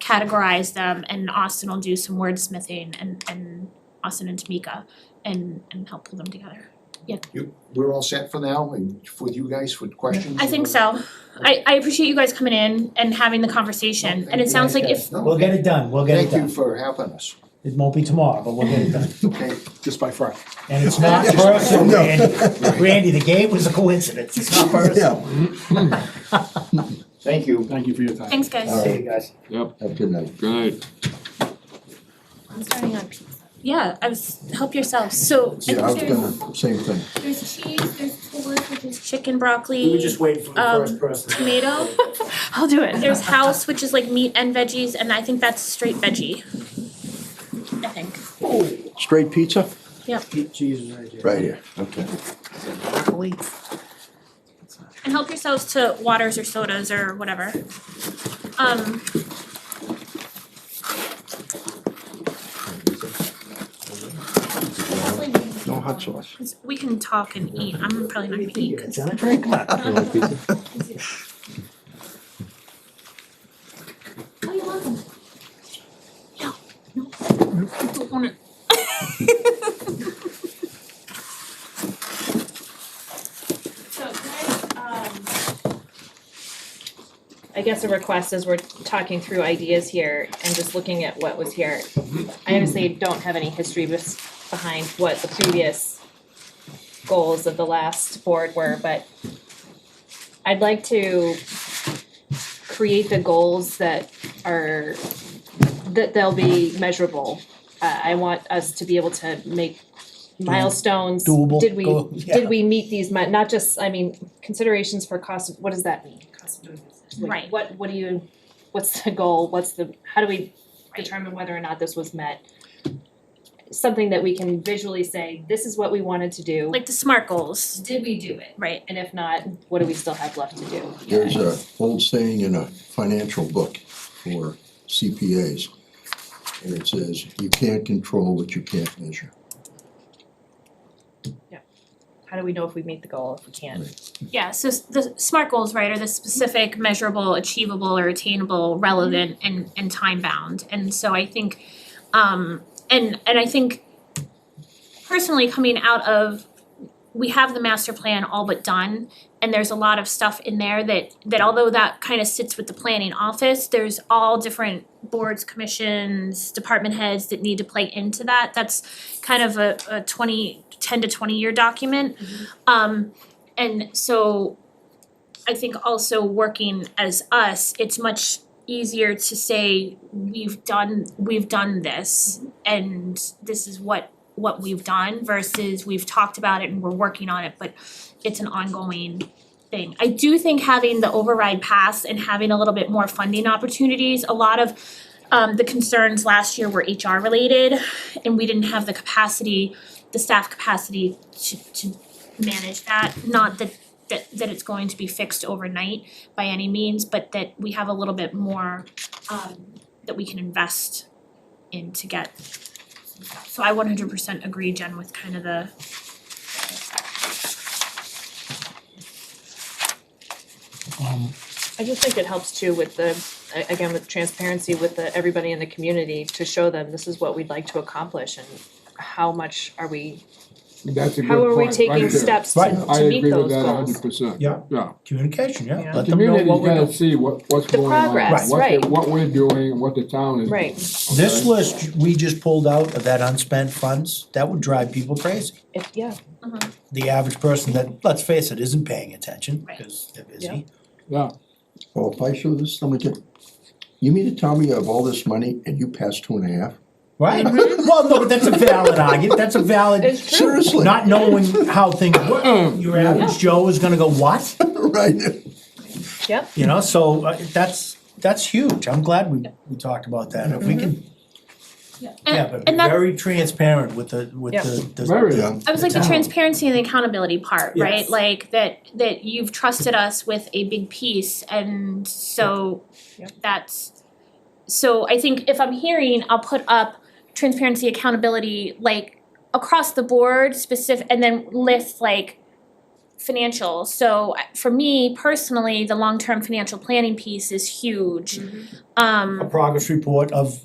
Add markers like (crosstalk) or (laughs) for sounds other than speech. categorize them and Austin will do some wordsmithing and and Austin and Tamika and and help pull them together. You, we're all set for now and for you guys with questions? Uh, I think so. I I appreciate you guys coming in and having the conversation and it sounds like if No, We'll get it done, we'll get it Thank you done. for helping us, It won't be tomorrow, but we'll get it done. okay? just by Friday. And (laughs) it's not personal, Randy. Randy, the game was a coincidence, it's not personal. Thank you. Thank you for your time. thanks guys. See you guys. Yep, Have a good night. good night. I'm starting on pizza. Yeah, I was help yourself. So I Yeah, I think was there's gonna, same thing. There's cheese, there's tours, which is chicken broccoli. We were just waiting for the Um, first person. (laughs) tomato. I'll do it. There's house, which is like meat and veggies, and I think that's straight veggie. I think. Straight pizza? Cheese is Oh, right here. Right here, okay. Broccoli. And help yourselves to waters or sodas or whatever. Um, No hot sauce. 'cause we can talk and eat. I'm probably not gonna eat. 'cause- Sound drink? Come on. (laughs) Oh, you're welcome. I don't wanna- (laughs) So can I, um, I guess a request as we're talking through ideas here and just looking at what was here. I honestly don't have any history bes- behind what the previous goals of the last board were, but I'd like to create the goals that are, that they'll be measurable. Uh, I want us to be able to make milestones. Doable Did we, goal, yeah. did we meet these, mi- not just, I mean, considerations for cost, of- what does that mean? Cost of doing business. Like, Right. What, what do you, what's the goal, what's the, how do we Right. determine whether or not this was met? Something that we can visually say, this is what we wanted to do, Like the SMART goals, did we do it? right? And if not, what do we still have left to do? There's a old saying in a financial book for CPAs. And it says, you can't control what you can't measure. How do we know if we meet the goal, if we can't? Yeah, so s- the SMART goals, right, are the specific, measurable, achievable or attainable, relevant and and time bound. And so I think um and and I think personally coming out of we have the master plan all but done and there's a lot of stuff in there that that although that kind of sits with the planning office, there's all different boards, commissions, department heads that need to play into that. That's kind of a a twenty, ten to twenty year document. Um and so I think also working as us, it's much easier to say we've done we've done this and this is what what we've done versus we've talked about it and we're working on it, but it's an ongoing thing. I do think having the override pass and having a little bit more funding opportunities, a lot of um the concerns last year were HR related and we didn't have the capacity, the staff capacity to to manage that, not that that that it's going to be fixed overnight by any means, but that we have a little bit more um that we can invest in to get. So I one hundred percent agree, Jen, with kind of the Um, I just think it helps too with the, a- again, with transparency with the, everybody in the community to show them this is what we'd like to accomplish and how much are we, That's a good point, how are we taking right there. steps Right. to, to meet I those goals? agree with that a hundred percent. Yeah. Yeah. Communication, yeah, Yeah. let them know Community's what we're gotta doing. see what, what's The going on, progress, what, right. the- what we're doing, what the town is doing. Right, This list we just pulled out of that unspent funds, that would drive people crazy. if, yeah, The average person that, let's face it, isn't paying attention Right. because they're Yeah. busy. Yeah, Well, if I show this, I'm gonna get, you mean to tell me you have all this money and you pass two and a half? Right? Well, no, but that's a valid argument, that's a valid, it's true. Seriously? not knowing how things work. Mm. Your average Joe is gonna go, what? (laughs) Right. Yep. You know, so uh, that's, that's huge. I'm glad we, we talked about that. If Mm-hmm. we can, yeah, and but be and that very transparent with the, with Yeah. the, Very. the, Yeah. I was like the Yeah. transparency and the accountability part, right? Yes. Like that that you've trusted us with a big piece and so Yeah. that's so I think if I'm hearing, I'll put up transparency, accountability, like across the board specific and then list like financial, so I- for me personally, the long-term financial planning piece is huge. Um A progress report of